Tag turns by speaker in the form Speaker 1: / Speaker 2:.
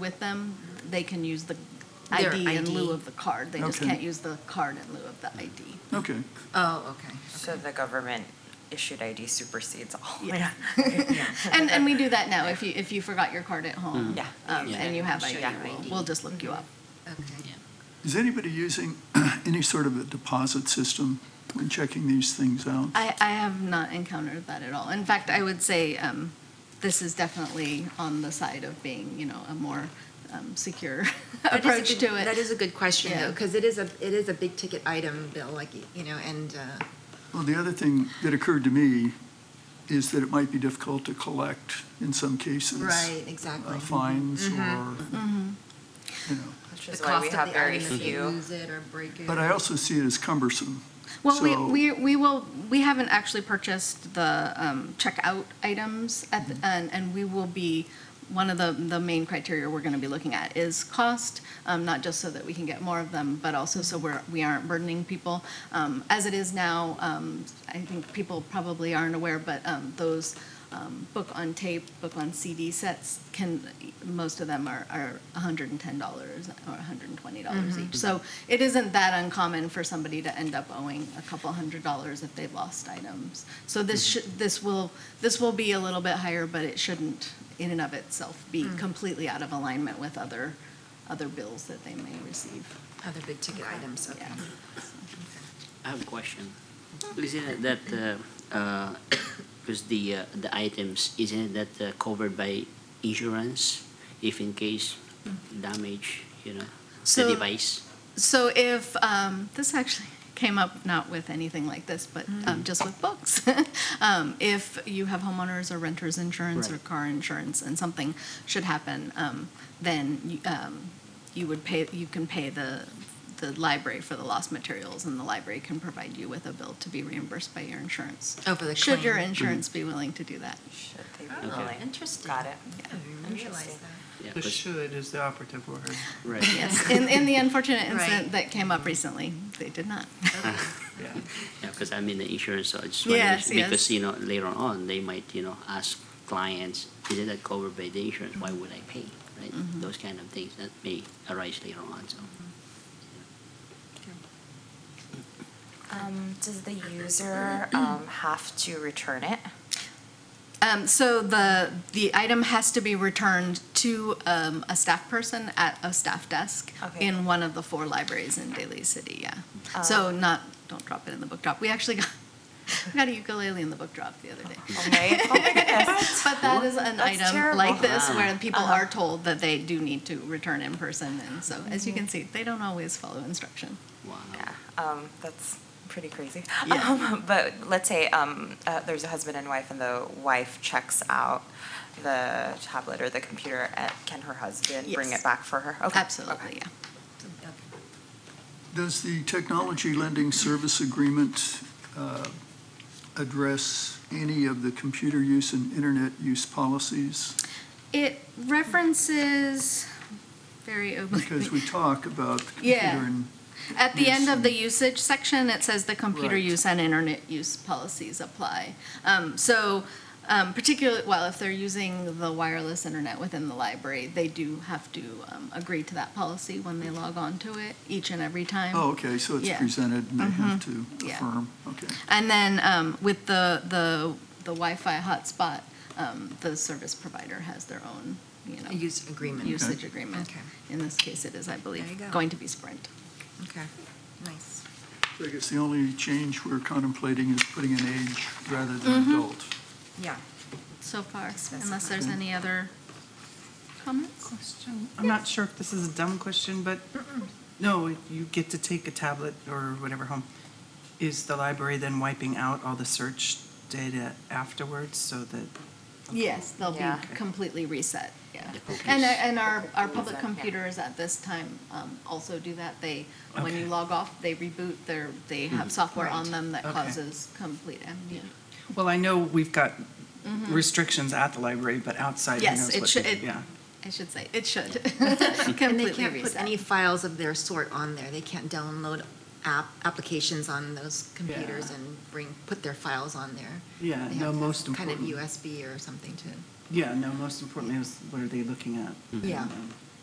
Speaker 1: with them, they can use the
Speaker 2: Their
Speaker 1: ID in
Speaker 2: ID.
Speaker 1: lieu of the card. They just
Speaker 3: Okay.
Speaker 1: can't use the card in lieu of the ID.
Speaker 3: Okay,
Speaker 2: Oh, okay.
Speaker 4: So the government issued ID supersedes all.
Speaker 1: Yeah. And, and we do that now. If you, if you forgot your card at home.
Speaker 4: Yeah.
Speaker 2: Mm-hmm.
Speaker 1: um, And you have ID,
Speaker 4: Yeah.
Speaker 1: we'll, we'll just look you up.
Speaker 2: Okay.
Speaker 3: is anybody using any sort of a deposit system when checking these things out?
Speaker 1: I, I have not encountered that at all. In fact, I would say um, this is definitely on the side of being, you know, a more um, secure
Speaker 2: That is a
Speaker 1: approach
Speaker 2: good-
Speaker 1: to it.
Speaker 2: That is a good question,
Speaker 1: Yeah.
Speaker 2: though, because it is a, it is a big ticket item, Bill, like, you know, and, uh,
Speaker 3: Well, the other thing that occurred to me is that it might be difficult to collect in some cases.
Speaker 2: right,
Speaker 3: uh,
Speaker 2: exactly.
Speaker 3: Fines or, you know,
Speaker 4: Which
Speaker 2: The
Speaker 4: is why
Speaker 2: cost
Speaker 4: we
Speaker 2: of
Speaker 4: have
Speaker 2: the Mm-hmm.
Speaker 4: very
Speaker 2: item if you
Speaker 4: few.
Speaker 2: lose it or break it.
Speaker 3: but I also see it as cumbersome.
Speaker 1: Well, we,
Speaker 3: So-
Speaker 1: we, we will, we haven't actually purchased the um, checkout items at, the- and, and we will be, one of the, the main criteria we're going to be looking at is cost, um, not just so that we can get more of them, but also so we're, we aren't burdening people. Um, As it is now, um, I think people probably aren't aware, but um, those um, book on tape, book on CD sets can, most of them are, are $110 or $120 each. So it isn't that uncommon for somebody to end up owing a couple hundred dollars if they've lost items. So this should, this will, this will be a little bit higher, but it shouldn't in and of itself be completely out of alignment with other, other bills that they may receive.
Speaker 2: Other big ticket items, okay.
Speaker 1: Yeah.
Speaker 5: I have a question. Isn't it that, because the, uh, the items, isn't it that uh, covered by insurance if in case damage, you know,
Speaker 1: So-
Speaker 5: the device?
Speaker 1: So if, um, this actually came up not with anything like this, but
Speaker 2: Mm.
Speaker 1: um, just with books. um, if you have homeowners or renters insurance or
Speaker 5: Right.
Speaker 1: car insurance and something should happen, um, then you, um, you would pay, you can pay the, the library for the lost materials and the library can provide you with a bill to be reimbursed by your insurance.
Speaker 2: Oh, for the
Speaker 1: Should your
Speaker 2: claim. Mm.
Speaker 1: insurance be willing to do that?
Speaker 4: Should they be
Speaker 2: Oh,
Speaker 4: willing?
Speaker 2: interesting.
Speaker 4: Got it.
Speaker 2: I didn't realize
Speaker 4: Interesting.
Speaker 2: that.
Speaker 5: Yeah,
Speaker 6: The
Speaker 5: 'cause-
Speaker 6: should is the operative word.
Speaker 5: Right.
Speaker 1: Yes, in, in the unfortunate incident
Speaker 2: Right. Mm-hmm.
Speaker 1: that came up recently, they did not.
Speaker 6: Yeah.
Speaker 5: Yeah, because I'm in the insurance, so I just
Speaker 1: Yes,
Speaker 5: wondered,
Speaker 1: yes.
Speaker 5: because, you know, later on, they might, you know, ask clients, isn't that covered by the insurance? Why would I pay, right? Those kind of things that may arise later on, so.
Speaker 4: Um, Does the user um, have to return it?
Speaker 1: Um, so the, the item has to be returned to, um, a staff person at a staff desk
Speaker 4: Okay. Uh,
Speaker 1: in one of the four libraries in Daly City, yeah. So not, don't drop it in the book drop. We actually got, we got a ukulele in the book drop the other day.
Speaker 4: Okay. Oh my goodness.
Speaker 1: But that is an
Speaker 4: That's
Speaker 1: item
Speaker 4: terrible. Uh-huh.
Speaker 1: like this where people are told that they do need to return in person. And so, as you can see, they don't always follow instruction.
Speaker 5: Wow.
Speaker 4: Yeah, um, that's pretty crazy.
Speaker 1: Yeah.
Speaker 4: Um, but let's say um, uh, there's a husband and wife, and the wife checks out the tablet or the computer. At, can her husband bring
Speaker 1: Yes.
Speaker 4: it back for her? Okay.
Speaker 1: Absolutely,
Speaker 4: okay.
Speaker 1: yeah.
Speaker 3: Does the technology lending service agreement uh, address any of the computer use and internet use policies?
Speaker 1: It references very obliquely.
Speaker 3: Because we talk about the
Speaker 1: Yeah.
Speaker 3: computer and
Speaker 1: At the end of the
Speaker 3: Yes.
Speaker 1: usage section, it says the computer
Speaker 3: Right.
Speaker 1: use and internet use policies apply. Um, So particularly, well, if they're using the wireless internet within the library, they do have to um, agree to that policy when they log on to it each and every time.
Speaker 3: Oh, okay, so it's
Speaker 1: Yeah. Mm-hmm.
Speaker 3: presented and they have to
Speaker 1: Yeah.
Speaker 3: affirm, okay.
Speaker 1: And then um, with the, the the Wi-Fi hotspot, um, the service provider has their own, you know.
Speaker 2: A use agreement.
Speaker 1: Usage
Speaker 3: Okay.
Speaker 1: agreement.
Speaker 2: Okay.
Speaker 1: In this case, it is, I
Speaker 2: There you
Speaker 1: believe,
Speaker 2: go.
Speaker 1: going to be Sprint.
Speaker 2: Okay, nice.
Speaker 3: So I guess the only change we're contemplating is putting an age rather than
Speaker 1: Mm-hmm.
Speaker 3: adult.
Speaker 2: Yeah.
Speaker 1: So far,
Speaker 2: Specify.
Speaker 1: unless there's any other comments?
Speaker 6: Question, I'm not sure if this is a dumb question, but no, you get to take a tablet or whatever home. Is the library then wiping out all the search data afterwards so that?
Speaker 1: Yes, they'll be
Speaker 4: Yeah.
Speaker 1: completely reset, yeah.
Speaker 5: The cookies.
Speaker 1: And, uh, and our, our
Speaker 4: Cookies,
Speaker 1: public
Speaker 4: yeah.
Speaker 1: computers at this time um, also do that. They, when you
Speaker 6: Okay. Hmm.
Speaker 1: log off, they reboot, their they have software on
Speaker 6: Right.
Speaker 1: them that
Speaker 6: Okay.
Speaker 1: causes complete amnesia.
Speaker 6: Well, I know we've got restrictions at the library, but outside, who
Speaker 1: Yes,
Speaker 6: knows
Speaker 1: it
Speaker 6: what?
Speaker 1: should-
Speaker 6: they-
Speaker 1: it-
Speaker 6: Yeah,
Speaker 1: I should say, it should
Speaker 2: And they
Speaker 1: completely
Speaker 2: can't put any
Speaker 1: reset.
Speaker 2: files of their sort on there. They can't download app, applications on those computers
Speaker 6: Yeah.
Speaker 2: and bring, put their files on there.
Speaker 6: yeah,
Speaker 2: They
Speaker 6: no,
Speaker 2: have to
Speaker 6: most
Speaker 2: have Kind of
Speaker 6: important,
Speaker 2: USB or something to.
Speaker 6: yeah, no, most importantly is what are they looking at?
Speaker 2: Yeah.
Speaker 6: Um,